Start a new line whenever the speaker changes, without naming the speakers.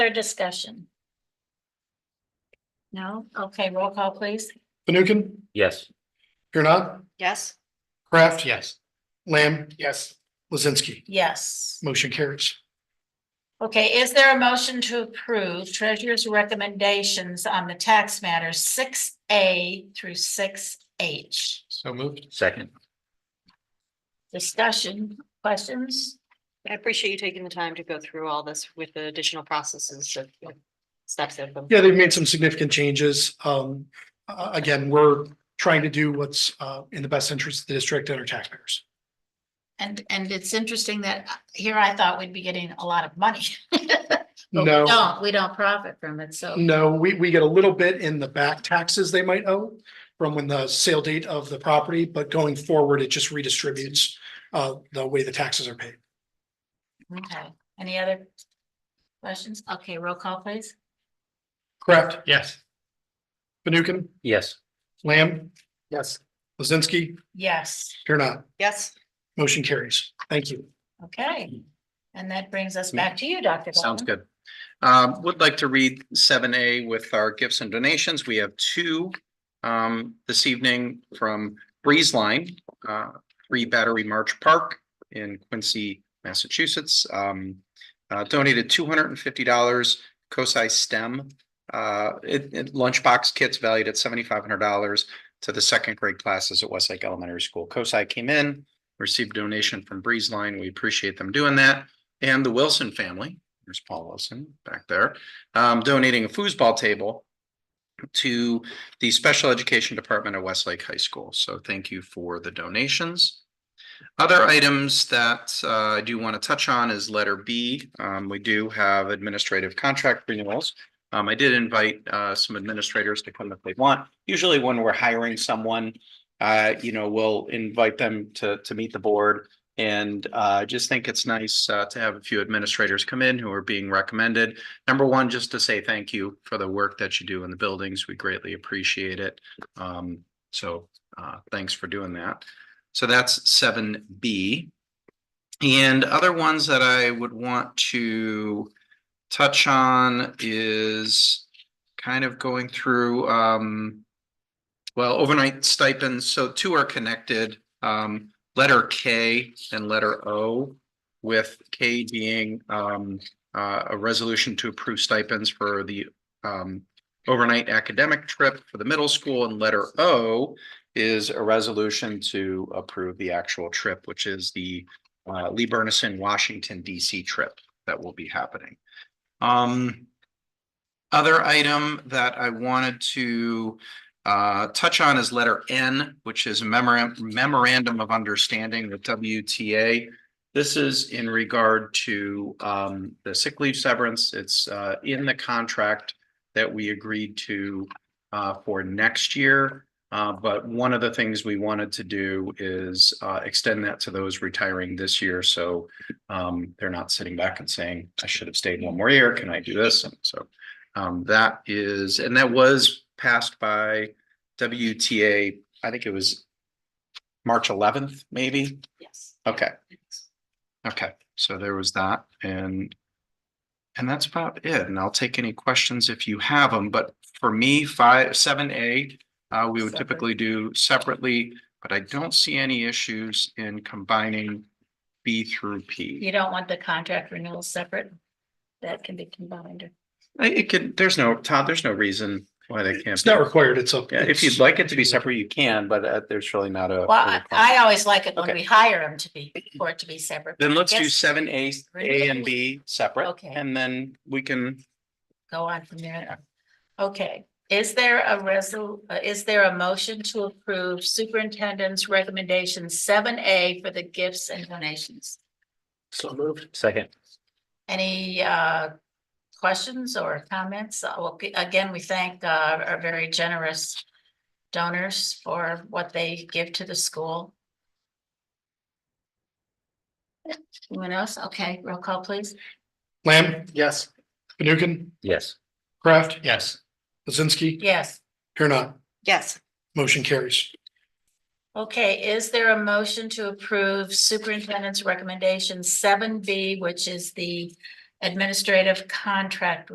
Further discussion? No? Okay, roll call, please.
Fanukin?
Yes.
Here not?
Yes.
Kraft? Yes. Lamb? Yes. Lizinski?
Yes.
Motion carries.
Okay, is there a motion to approve treasurer's recommendations on the tax matters six A through six H?
So moved.
Second.
Discussion, questions?
I appreciate you taking the time to go through all this with the additional processes of of steps of them.
Yeah, they've made some significant changes. Um, uh, again, we're trying to do what's, uh, in the best interest of the district and our taxpayers.
And, and it's interesting that uh, here I thought we'd be getting a lot of money. But we
No, Mm.
Don't, we don't profit from it, so,
no, we, we get a little bit in the back taxes they might owe from when the sale date of the property, but going forward, it just redistributes, uh, the way the taxes are paid.
okay. Any other questions? Okay, roll call, please.
Correct? Yes. Fanukin?
Yes.
Lamb? Yes. Lizinski?
Yes.
Here not?
Yes,
Motion carries. Thank you.
Okay, and that brings us back to you, Dr.
Sounds
Bowman.
good. Um, would like to read seven A with our gifts and donations. We have two um, this evening from Breeze Line, uh, Free Battery March Park in Quincy, Massachusetts. Um, uh, donated two hundred and fifty dollars COSI STEM uh, it, it- lunchbox kits valued at seventy-five hundred dollars to the second grade classes at Westlake Elementary School. COSI came in, received a donation from Breeze Line. We appreciate them doing that. And the Wilson family, there's Paul Wilson back there, um, donating a foosball table to the Special Education Department at Westlake High School. So thank you for the donations. Other items that uh, I do want to touch on is letter B. Um, we do have administrative contract renewals. Um, I did invite uh, some administrators to come if they want. Usually when we're hiring someone, uh, you know, we'll invite them to, to meet the board. And uh, I just think it's nice uh, to have a few administrators come in who are being recommended. Number one, just to say thank you for the work that you do in the buildings. We greatly appreciate it. Um, so uh, thanks for doing that. So that's seven B. And other ones that I would want to touch on is kind of going through um. Well, overnight stipends, so two are connected, um, letter K and letter O. With K being um uh, a resolution to approve stipends for the um. Overnight academic trip for the middle school and letter O is a resolution to approve the actual trip, which is the. Uh, Lee Burnison, Washington DC trip that will be happening. Um. Other item that I wanted to uh touch on is letter N, which is memorandum memorandum of understanding with WTA. This is in regard to um the sick leave severance. It's uh in the contract that we agreed to uh for next year. Uh, but one of the things we wanted to do is uh extend that to those retiring this year. So um, they're not sitting back and saying, I should have stayed one more year. Can I do this? And so um, that is, and that was passed by WTA, I think it was March eleventh, maybe.
yes.
Okay. Okay, so there was that and and that's about it. And I'll take any questions if you have them, but for me, five, seven A, uh, we would
Separate.
typically do separately, but I don't see any issues in combining B through P.
You don't want the contract renewal separate? That can be combined.
I- It could, there's no, Todd, there's no reason why they can't.
It's not
be-
required. It's up.
Yeah, if you'd like it to be separate, you can, but uh, there's really not a.
Well, I, I always like it when
Okay.
we hire them to be, for it to be separate.
Then let's do
Yes.
seven A, A and B separate.
Okay.
And then we can,
Go on from there. Okay, is there a resol, uh, is there a motion to approve superintendent's recommendation seven A for the gifts and donations?
So moved. Second.
Any uh questions or comments? Uh, well, again, we thank uh our very generous donors for what they give to the school. Anyone else? Okay, roll call, please.
Lamb? Yes. Fanukin?
Yes.
Kraft? Yes. Lizinski?
Yes.
Here not?
Yes,
Motion carries.
Okay, is there a motion to approve superintendent's recommendation seven B, which is the administrative contract